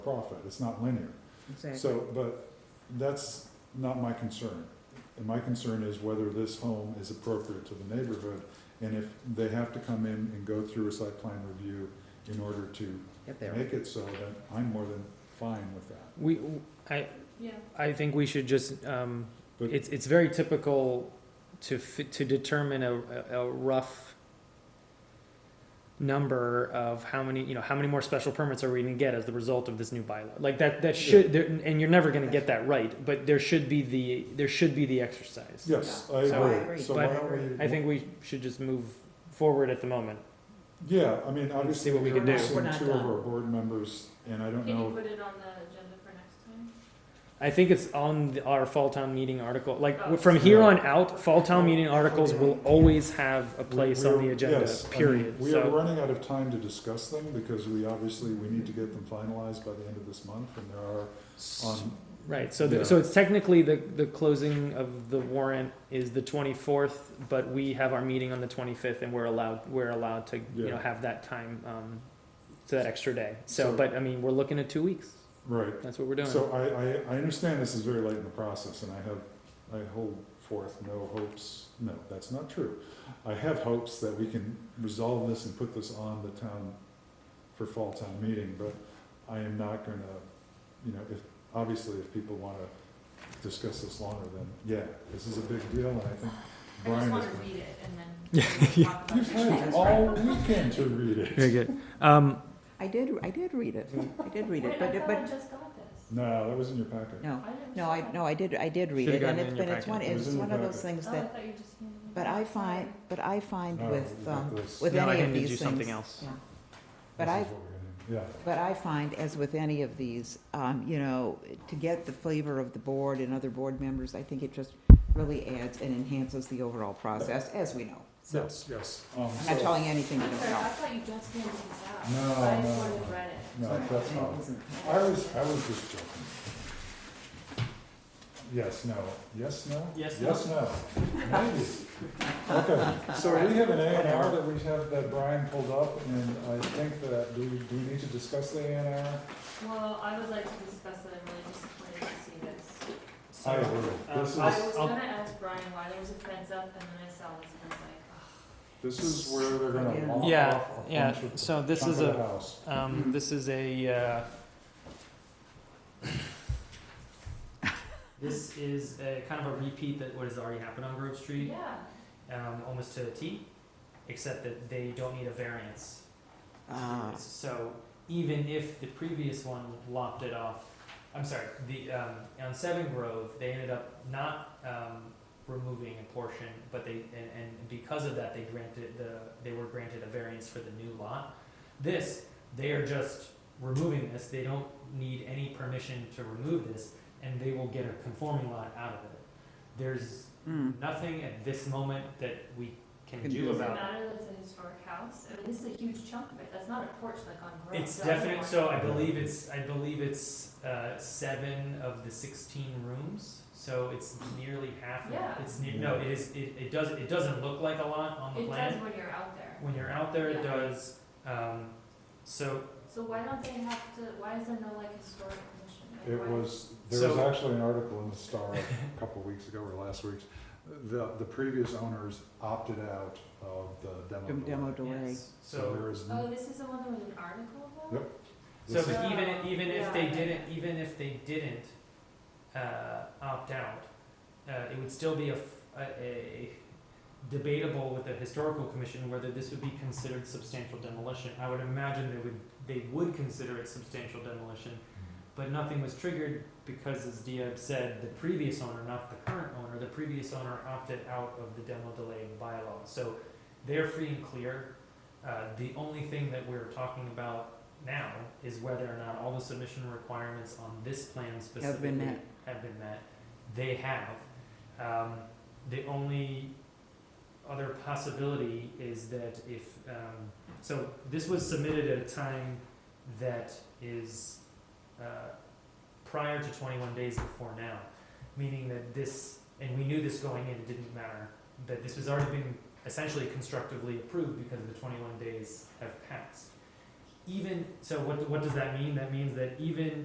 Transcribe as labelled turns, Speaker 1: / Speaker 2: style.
Speaker 1: profit, it's not linear.
Speaker 2: Exactly.
Speaker 1: So, but that's not my concern. And my concern is whether this home is appropriate to the neighborhood, and if they have to come in and go through a site plan review in order to
Speaker 2: Get there.
Speaker 1: make it so, then I'm more than fine with that.
Speaker 3: We, I,
Speaker 4: Yeah,
Speaker 3: I think we should just, um,
Speaker 1: But-
Speaker 3: it's, it's very typical to fit, to determine a, a a rough number of how many, you know, how many more special permits are we gonna get as the result of this new bylaw? Like that, that should, there- and you're never gonna get that right, but there should be the, there should be the exercise.
Speaker 1: Yes, I
Speaker 3: So-
Speaker 1: agree. So why
Speaker 3: But
Speaker 1: don't we?
Speaker 3: I think we should just move forward at the moment.
Speaker 1: Yeah, I mean, obviously,
Speaker 3: see what we
Speaker 1: we're
Speaker 3: can do.
Speaker 2: We're
Speaker 1: missing
Speaker 2: not
Speaker 1: two of
Speaker 2: done.
Speaker 1: our board members, and I don't
Speaker 4: can you
Speaker 1: know,
Speaker 4: put it on the agenda for next time?
Speaker 3: I think it's on the, our fall town meeting article,
Speaker 1: Oh.
Speaker 3: like, from here on out, fall town meeting articles will always have a place on
Speaker 1: We-
Speaker 3: the
Speaker 1: we are-
Speaker 3: agenda,
Speaker 1: yes, I mean,
Speaker 3: period,
Speaker 1: We are
Speaker 3: so.
Speaker 1: running out of time to discuss them, because we obviously, we need to get them finalized by the end of this month, and there are on,
Speaker 3: Right, so,
Speaker 1: Yeah.
Speaker 3: the- so it's technically the, the closing of the warrant is the twenty-fourth, but we have our meeting on the twenty-fifth and we're allowed, we're allowed to, you know,
Speaker 1: Yeah.
Speaker 3: have that time, um, to that extra day. So,
Speaker 1: So-
Speaker 3: but I mean, we're looking at two weeks,
Speaker 1: right.
Speaker 3: that's what we're doing.
Speaker 1: So I, I, I understand this is very late in the process, and I have, I hold forth no hopes, no, that's not true. I have hopes that we can resolve this and put this on the town, for fall town meeting, but I am not gonna, you know, if, obviously, if people wanna discuss this longer, then, yeah, this is a big deal, and I think
Speaker 4: I just
Speaker 1: Brian is.
Speaker 4: wanna read it and then.
Speaker 3: Yeah,
Speaker 4: we'll
Speaker 1: You've
Speaker 4: talk about it.
Speaker 1: had all weekend to read it.
Speaker 3: Very good. Um,
Speaker 2: I did, I did read it. I did read it,
Speaker 4: Wait, I
Speaker 2: but,
Speaker 4: thought I
Speaker 2: but,
Speaker 4: just got this.
Speaker 1: No, that was in your packet.
Speaker 2: no,
Speaker 4: I didn't
Speaker 2: no, I,
Speaker 4: see
Speaker 2: no, I did, I did read
Speaker 3: Should've
Speaker 2: it,
Speaker 3: gotten
Speaker 2: and
Speaker 3: it
Speaker 2: it's
Speaker 3: in
Speaker 2: been,
Speaker 3: your
Speaker 2: it's one,
Speaker 3: packet.
Speaker 1: It was
Speaker 2: it's
Speaker 1: in
Speaker 2: one
Speaker 1: your
Speaker 2: of those
Speaker 1: packet.
Speaker 2: things
Speaker 4: Oh, I
Speaker 2: that,
Speaker 4: thought you just handed me.
Speaker 2: but I
Speaker 4: that.
Speaker 2: find,
Speaker 4: Sorry.
Speaker 2: but I find
Speaker 1: No,
Speaker 2: with,
Speaker 1: got
Speaker 2: um,
Speaker 1: this.
Speaker 2: with
Speaker 3: No, I
Speaker 2: any of
Speaker 3: can do
Speaker 2: these
Speaker 3: something
Speaker 2: things.
Speaker 3: else.
Speaker 2: yeah.
Speaker 1: This
Speaker 2: But
Speaker 1: is
Speaker 2: I've,
Speaker 1: what we're gonna-
Speaker 2: But I find, as with any of these, um, you know, to get the flavor of the board and other board members, I think it just really adds and enhances the overall process, as we know.
Speaker 1: Yeah,
Speaker 2: So,
Speaker 1: yes, yes. Um,
Speaker 2: I'm not
Speaker 1: so-
Speaker 2: telling you anything you
Speaker 4: I'm
Speaker 2: don't
Speaker 4: sorry, I
Speaker 2: know.
Speaker 4: thought you just handed this out.
Speaker 1: No,
Speaker 4: I
Speaker 1: no,
Speaker 4: just wanted
Speaker 1: no.
Speaker 4: to read it.
Speaker 1: No, that's not, I was, I was just joking. Yes, no, yes, no?
Speaker 3: Yes, no.
Speaker 1: Yes, no. Maybe. Okay, so we have an A and R that we have, that Brian pulled up, and I think that, do we, do we need to discuss the A and R?
Speaker 4: Well, I would like to discuss that, I'm really disappointed to see this.
Speaker 1: I agree. This
Speaker 3: Um,
Speaker 4: I
Speaker 1: is,
Speaker 4: was
Speaker 3: I'll-
Speaker 4: gonna ask Brian why there was a fence up and then I saw this and I was like, oh.
Speaker 1: this is where they're gonna
Speaker 2: Yeah.
Speaker 1: lop off a
Speaker 3: Yeah, yeah,
Speaker 1: bunch of-
Speaker 3: so this
Speaker 1: chunk
Speaker 3: is
Speaker 1: of the
Speaker 3: a-
Speaker 1: house.
Speaker 3: Um, this is a, uh, this is a kind of a repeat that what has already happened on Grove Street,
Speaker 4: yeah.
Speaker 3: um, almost to a T, except that they don't need a variance.
Speaker 2: Ah,
Speaker 3: So even if the previous one lopped it off, I'm sorry, the, um, on Seven Grove, they ended up not, um, removing a portion, but they, and, and because of that, they granted the, they were granted a variance for the new lot. This, they are just removing this, they don't need any permission to remove this, and they will get a conforming lot out of it. There's
Speaker 2: mm.
Speaker 3: nothing at this moment that we can
Speaker 2: Can
Speaker 3: do
Speaker 2: do
Speaker 4: Does it
Speaker 3: about
Speaker 4: matter that it's a historic house? I mean, this is a huge chunk of it, that's not a porch like on Grove.
Speaker 3: It's
Speaker 4: The other
Speaker 3: definite,
Speaker 4: one-
Speaker 3: so I believe it's, I believe it's, uh, seven of the sixteen rooms, so it's nearly half of,
Speaker 4: Yeah.
Speaker 3: it's near, no, it is, it, it does, it doesn't look like a lot on the
Speaker 4: It
Speaker 3: plan.
Speaker 4: does when you're out there.
Speaker 3: When you're out there, it
Speaker 4: Yeah.
Speaker 3: does, um, so,
Speaker 4: So why don't they have to, why is there no like historic commission? Like,
Speaker 1: It
Speaker 4: why-
Speaker 1: was, there was
Speaker 3: So-
Speaker 1: actually an article in the Star a couple of weeks ago or last week's. The, the previous owners opted out of the demo.
Speaker 2: Dem- Demo
Speaker 1: delay.
Speaker 2: delay.
Speaker 3: yes,
Speaker 1: So
Speaker 3: so,
Speaker 1: there is.
Speaker 4: Oh, this is the one that was an article about?
Speaker 1: Yep.
Speaker 3: so
Speaker 1: this is-
Speaker 3: but even, even if they
Speaker 4: Yeah.
Speaker 3: didn't, even if they didn't, uh, opt out, uh, it would still be a, f- a- a debatable with the historical commission whether this would be considered substantial demolition. I would imagine they would, they would consider it substantial demolition,
Speaker 1: Hmm.
Speaker 3: but nothing was triggered because, as Diab said, the previous owner, not the current owner, the previous owner opted out of the demo delay bylaw. So they're free and clear. Uh, the only thing that we're talking about now is whether or not all the submission requirements on this plan specifically
Speaker 2: Have been met.
Speaker 3: have been met. They have. Um, the only other possibility is that if, um, so this was submitted at a time that is uh, prior to 21 days before now, meaning that this, and we knew this going in, it didn't matter, that this was already been essentially constructively approved because the 21 days have passed. even, so what, what does that mean? That means that even